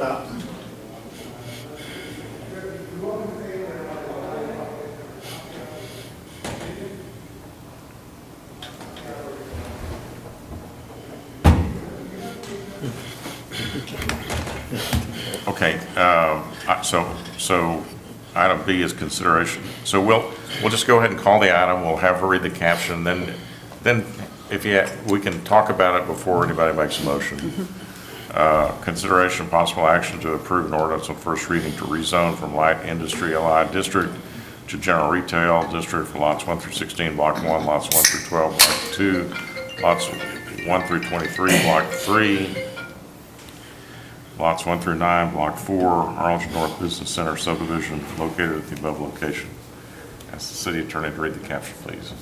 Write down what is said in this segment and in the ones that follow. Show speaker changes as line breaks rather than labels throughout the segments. Stop.
Okay, um, I- so, so item B is consideration. So we'll, we'll just go ahead and call the item, we'll have her read the caption, then, then if you, ha- we can talk about it before anybody makes a motion. Uh, Consideration possible action to approve an ordinance on first reading to rezone from light industry LI district to general retail district for lots 1 through 16, block 1, lots 1 through 12, block 2, lots 1 through 23, block 3, lots 1 through 9, Block 4, Arlington North Business Center subdivision located at the above location. Ask the city attorney to read the caption, please.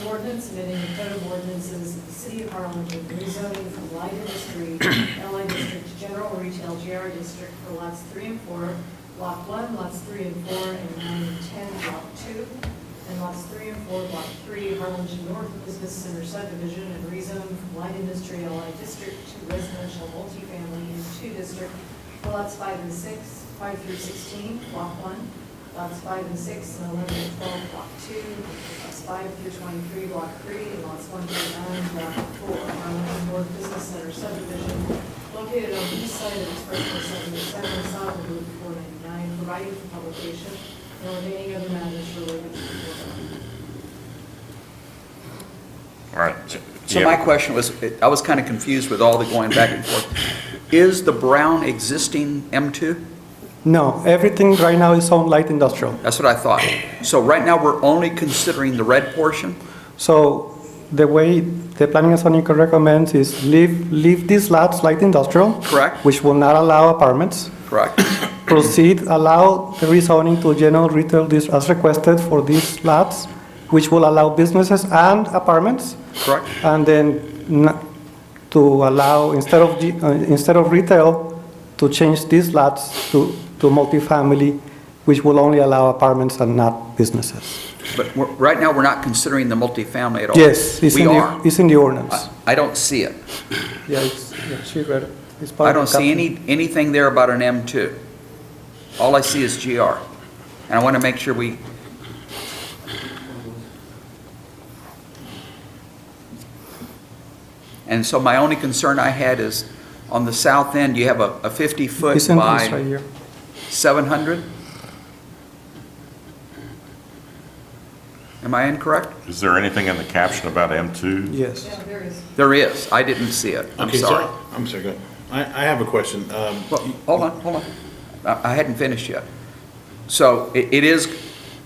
An ordinance amending the code of ordinances of the city of Harlingen, rezoning from light industry, LI district to general retail, GR district for lots three and four, block one, lots three and four, and nine and ten, block two, and lots three and four, block three, Harlingen North Business Center subdivision, and rezone from light industry, LI district to residential multifamily in two district for lots five and six, five through sixteen, block one, lots five and six, and eleven and twelve, block two, lots five through twenty-three, block three, and lots one through nine, block four, Harlingen North Business Center subdivision, located on the east side of Expressway seventy-seven, south of Route four ninety-nine, providing for publication, and remaining other matters related to the foregoing.
All right.
So
Yeah.
my question was, I was kind of confused with all the going back and forth. Is the brown existing M2?
No, everything right now is on light industrial.
That's what I thought. So right now, we're only considering the red portion?
So the way the planning and zoning code recommends is leave, leave these lots light industrial.
Correct.
Which will not allow apartments.
Correct.
Proceed, allow the rezoning to general retail dis- as requested for these lots, which will allow businesses and apartments.
Correct.
And then n- to allow, instead of, G- uh, instead of retail, to change these lots to, to multifamily, which will only allow apartments and not businesses.
But we're- right now, we're not considering the multifamily at all?
Yes, it's
We
in
are. Uh,
the, it's in the ordinance.
I- I don't see it.
Yeah, it's, yeah, she read it. It's part
I
of the
don't see any,
caption.
anything there about an M2. All I see is GR. And I want to make sure we, and so my only concern I had is, on the south end, you have a a 50-foot
It's in this right
by
here.
700? Am I incorrect?
Is there anything in the caption about M2?
Yes.
Yeah, there is.
There is. I didn't see it. I'm
Okay, so-
sorry.
I'm sorry, go ahead. I, I have a question. Um,
Well, hold on, hold on. I I hadn't finished yet. So it it is,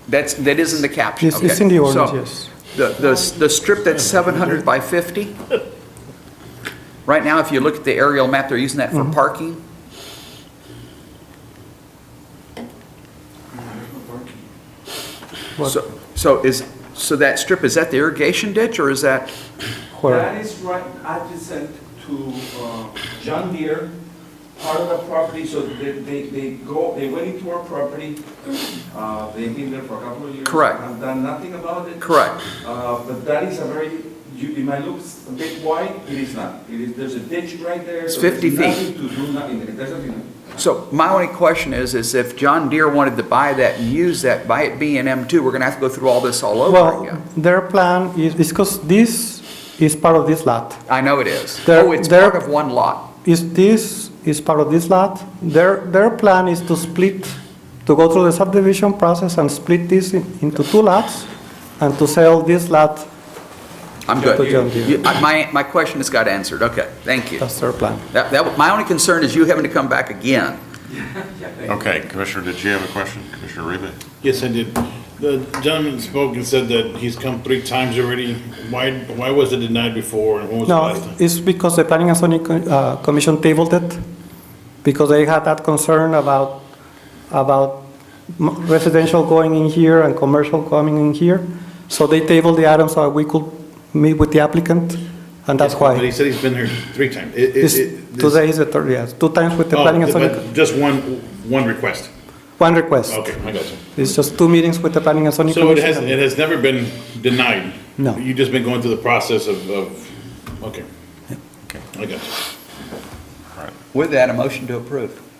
that's, that is in the caption,
Yes,
okay?
it's in the ordinance,
So
yes.
The, the s- the strip that's 700 by 50, right now, if you look at the aerial map, they're using that
Mm-hmm.
for parking.
What-
So, so is, so that strip, is that the irrigation ditch, or is that,
Where,
That is right adjacent to uh, John Deere, part of the property, so they, they, they go, they went into our property. Uh, They've been there for a couple of years.
Correct.
I've done nothing about it.
correct?
Uh, But that is a very, you, it might look a bit wide, it is not. It is, there's a ditch right there.
It's
so there's
50 feet.
Nothing to do, nothing, there. there's nothing.
So my only question is, is if John Deere wanted to buy that and use that, buy it B and M2, we're gonna have to go through all this all over
well,
again.
their plan is, is because this is part of this lot.
I know it is.
There-
Oh, it's
there-
part of one lot.
Is this, is part of this lot? Their, their plan is to split, to go through the subdivision process and split this in- into two lots and to sell this lot,
I'm
Yeah,
good.
to John Deere.
You- I- My, my question has got answered. Okay, thank you.
that's their plan.
That, that, my only concern is you having to come back again.
Okay, Commissioner, did you have a question? Commissioner Reba?
Yes, I did. The gentleman spoke and said that he's come three times already. Why, why was it denied before and when was the
No,
last time?
it's because the Planning and Zoning Co- uh, Commission tabled it, because they had that concern about, about m- residential going in here and commercial coming in here. So they tabled the item so we could meet with the applicant, and that's
But he
why.
said he's been here three times. It- it-
It's-
it- this-
Today is the third, yes, two times with the
Oh,
Planning and Zoning, Co-
but just one, one request.
one request.
Okay, I got you.
It's just two meetings with the Planning and Zoning
So it
Commission.
has, it has never been denied?
No.
You've just been going through the process of, of, okay. I got you.
All right.
With that, a motion to approve.